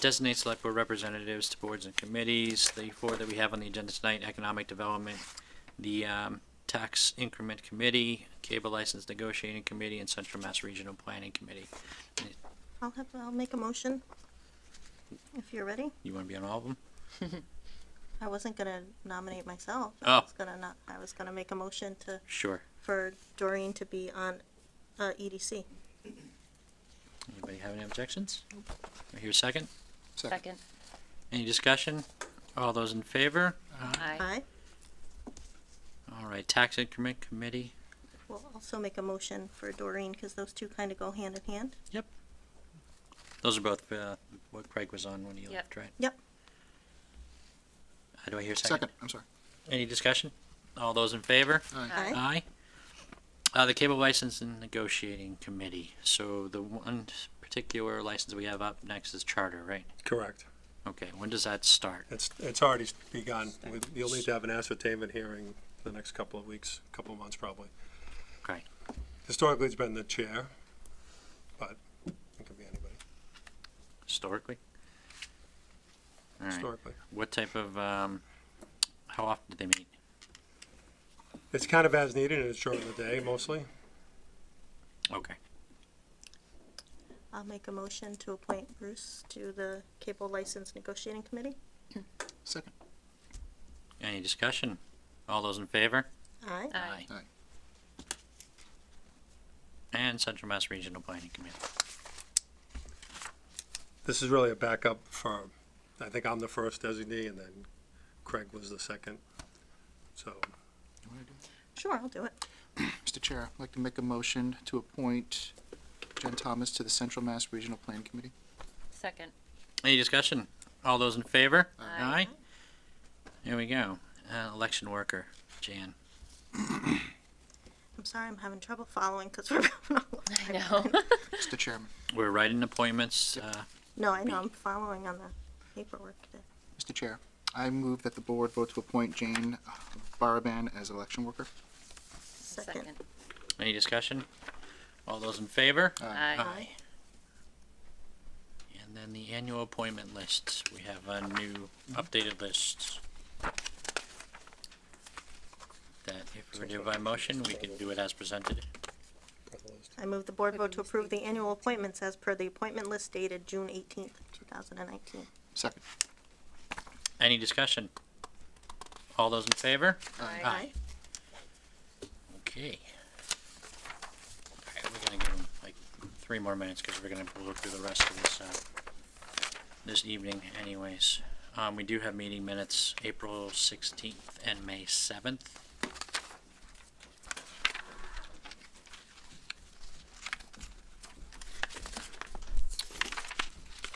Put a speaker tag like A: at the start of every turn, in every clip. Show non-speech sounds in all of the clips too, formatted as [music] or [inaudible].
A: Designate select board representatives to boards and committees. The four that we have on the agenda tonight, economic development, the um, tax increment committee, cable license negotiating committee, and central mass regional planning committee.
B: I'll have, I'll make a motion. If you're ready.
A: You want to be on all of them?
B: I wasn't gonna nominate myself.
A: Oh.
B: I was gonna not, I was gonna make a motion to,
A: Sure.
B: for Doreen to be on, uh, EDC.
A: Anybody have any objections? I hear a second.
C: Second.
A: Any discussion? All those in favor?
D: Uh-huh.
C: Aye.
B: I
A: All right, tax increment committee.
B: will also make a motion for Doreen, because those two kind of go hand in hand.
A: Those are both uh, what Craig was on when he
C: Yep.
A: left, right?
B: Yep.
A: Uh, Do I hear a second?
D: Second, I'm sorry.
A: Any discussion? All those in favor?
B: Aye.
A: Aye. Uh, the cable license and negotiating committee. So the one particular license we have up next is charter, right?
E: Correct.
A: Okay, when does that start?
E: It's, it's already begun. With- You'll need to have an ascertainment hearing the next couple of weeks, couple of months probably.
A: Okay.
E: Historically, it's been the chair, but it could be anybody,
A: Historically? All right.
E: historically.
A: What type of, um, how often do they meet?
E: It's kind of as needed and it's during the day mostly.
A: Okay.
B: I'll make a motion to appoint Bruce to the Cable License Negotiating Committee.
D: Second.
A: Any discussion? All those in favor?
B: Aye.
C: Aye.
A: And Central Mass Regional Planning Committee.
E: This is really a backup for, I think I'm the first designee and then Craig was the second. So
D: You wanna do
B: Sure, I'll do it.
D: it? Mr. Chair, I'd like to make a motion to appoint Jen Thomas to the Central Mass Regional Plan Committee.
C: Second.
A: Any discussion? All those in favor?
C: Aye.
A: Here we go. Uh, election worker, Jan.
B: I'm sorry, I'm having trouble following, because we're. [laughs] going all over.
C: I know.
D: Mr. Chairman,
A: We're writing appointments, uh,
B: No, I know, I'm following on the paperwork. there.
D: Mr. Chair, I move that the board vote to appoint Jane uh, Baraban as election worker.
B: Second.
A: Any discussion? All those in favor?
C: Aye.
A: And then the annual appointment list. We have a new updated list. That if we were to do by motion, we could do it as presented.
B: I move the board vote to approve the annual appointments as per the appointment list dated June eighteenth, two thousand and nineteen.
D: Second.
A: Any discussion? All those in favor?
C: Aye.
A: Okay. Alright, we're gonna give them like three more minutes, cause we're gonna blow through the rest of this, uh, this evening anyways. Um, we do have meeting minutes, April sixteenth and May seventh.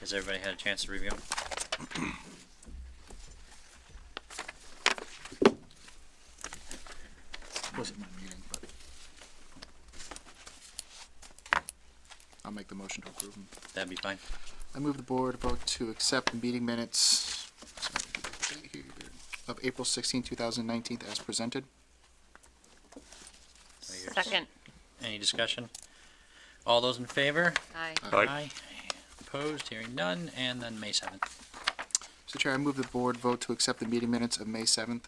A: Has everybody had a chance to review? 'em?
D: Wasn't my meeting, but. I'll make the motion to approve 'em.
A: That'd be fine.
D: I move the board vote to accept the meeting minutes sorry, of April 16, 2019 as presented.
C: Second.
A: Any discussion? All those in favor?
C: Aye.
A: Aye. Opposed, hearing none, and then May seventh.
D: Mr. Chair, I move the board vote to accept the meeting minutes of May 7th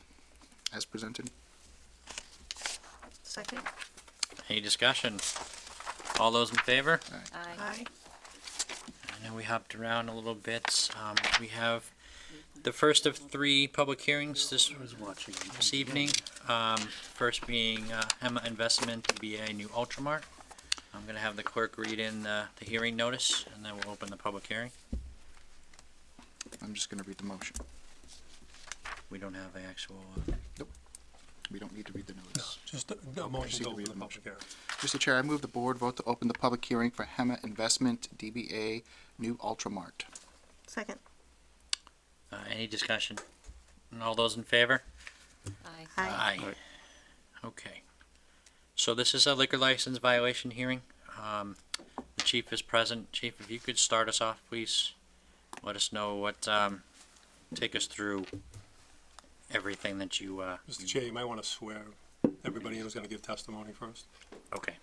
D: as presented.
B: Second.
A: Any discussion? All those in favor?
C: Aye.
B: Aye.
A: I know we hopped around a little bit. Um, we have the first of three public hearings this, this evening. Um, first being, uh, Hema Investment, BA New Ultramart. I'm gonna have the clerk read in the, the hearing notice, and then we'll open the public hearing.
D: I'm just going to read the motion.
A: We don't have the actual, uh,
D: We don't need to read the notice.
E: just a- a motion
D: Proceed
E: to
D: to
E: open
D: read
E: the
D: the
E: public
D: motion.
E: hearing.
D: Mr. Chair, I move the board vote to open the public hearing for Hema Investment DBA New Ultramart.
B: Second.
A: uh, any discussion? And all those in favor?
C: Aye.
B: Aye.
A: Okay. So this is a liquor license violation hearing. Um, the chief is present. Chief, if you could start us off, please. Let us know what, um, take us through everything that you, uh.
E: Mr. Chair, you might want to swear everybody in who's going to give testimony first.
A: Okay.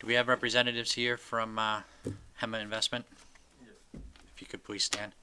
A: Do we have representatives here from, uh, Hema Investment? If If you could please stand.